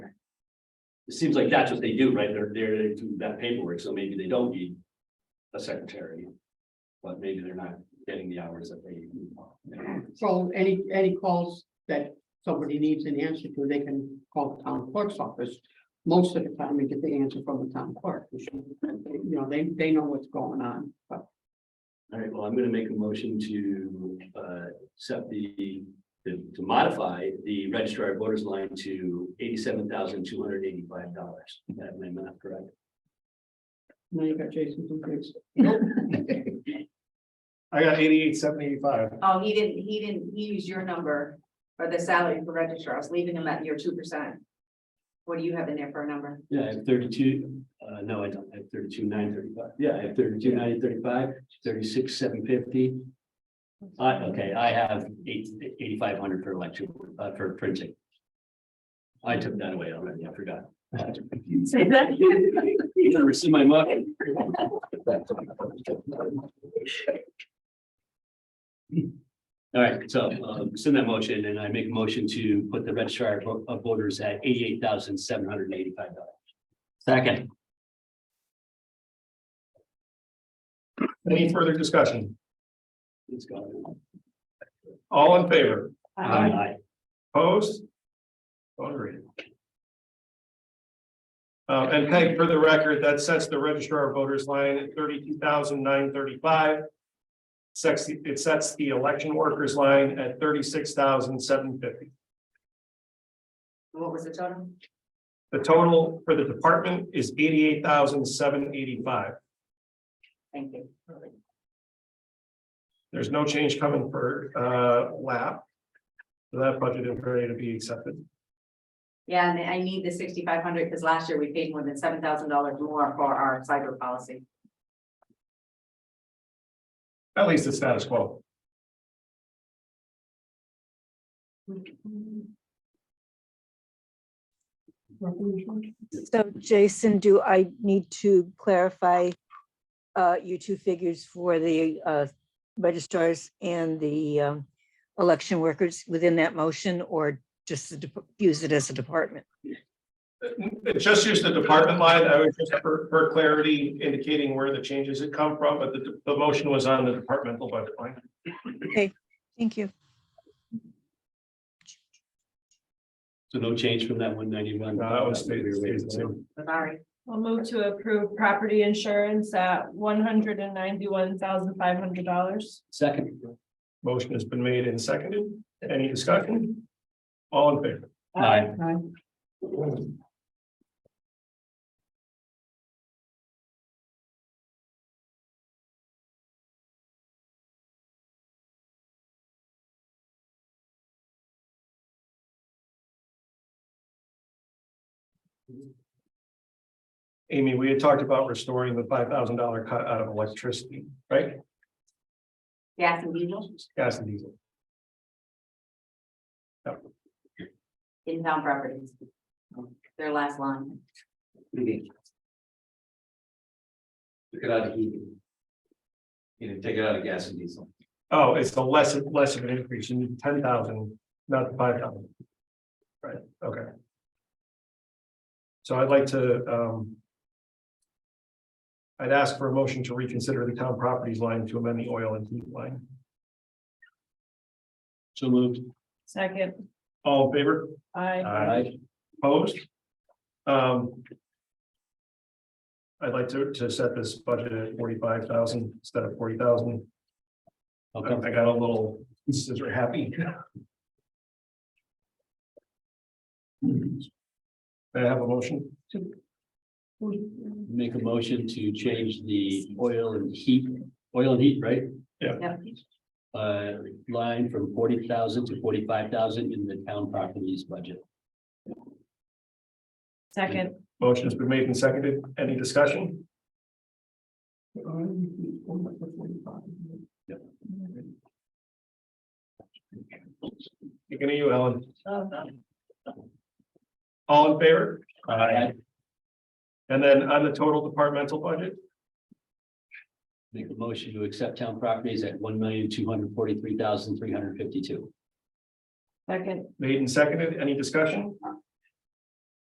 It seems like that's what they do, right? They're, they're, they do that paperwork, so maybe they don't need a secretary. But maybe they're not getting the hours that they. So any, any calls that somebody needs an answer to, they can call the town clerk's office. Most of the time, we get the answer from the town clerk. which, You know, they, they know what's going on, but All right, well, I'm gonna make a motion to, uh, accept the, to to modify the registrar of voters line to eighty-seven thousand two hundred eighty-five dollars. That may not correct. now you got Jason from Grace. I got eighty-eight, seven eighty-five. Oh, he didn't, he didn't, he used your number for the salary for registrar. I was leaving him at your two percent. What do you have in there for a number? Yeah, I have thirty-two, uh, no, I don't, I have thirty-two, nine thirty-five, yeah, I have thirty-two, nine thirty-five, thirty-six, seven fifty. I, okay, I have eight, eighty-five hundred for election, uh, for printing. I took that away already, I forgot. Say that. You never see my mug. All right, so, um, send that motion, and I make a motion to put the registrar of vo- of voters at eighty-eight thousand seven hundred and eighty-five dollars. Second. Any further discussion? Let's go. All in favor? Um, Um, Aye. Opposed? Vote agreed. Uh, and Peg, for the record, that sets the registrar of voters line at thirty-two thousand nine thirty-five. Sets, the- it sets the election workers line at thirty-six thousand seven fifty. What was the total? The total for the department is eighty-eight thousand seven eighty-five. Thank you. There's no change coming for, uh, lap. So That budget is ready to be accepted. Yeah, and I need the sixty-five hundred because last year we paid more than seven thousand dollars more for our cyber policy. At least it's status quo. So Jason, do I need to clarify uh, you two figures for the uh, registrars and the um, election workers within that motion or just to dep- use it as a department? Just use the department line. I was just for, for clarity indicating where the changes had come from, but the, the motion was on the departmental budget line. Thank you. So no change from that one ninety-one. No, that one stays- stays the same. Sorry. I'll move to approve property insurance at one hundred and ninety-one thousand five hundred dollars. Second. Motion has been made and seconded. Any discussion? All in favor? Aye. Aye. Amy, we had talked about restoring the five thousand dollar cut out of electricity, right? Gas and diesel, Gas and diesel. in-town properties. Their last line. Took it out of heat. You know, take it out of gas and diesel. Oh, it's the less, less of an increase in ten thousand, not five thousand. Right, okay. So I'd like to, um. I'd ask for a motion to reconsider the town properties line to amend the oil and heat line. So moved. Second, All in favor? I, Opposed? Um. I'd like to, to set this budget at forty-five thousand instead of forty thousand. I Okay. I got a little, scissor happy. May I have a motion? Make a motion to change the oil and heat, oil and heat, right? Yep. Uh, line from forty thousand to forty-five thousand in the town properties budget. second, Motion has been made and seconded. Any discussion? Beginning you, Ellen. All in favor? Aye. And then on the total departmental budget, Make a motion to accept town properties at one million, two hundred forty-three thousand, three hundred fifty-two. second, made and seconded. Any discussion?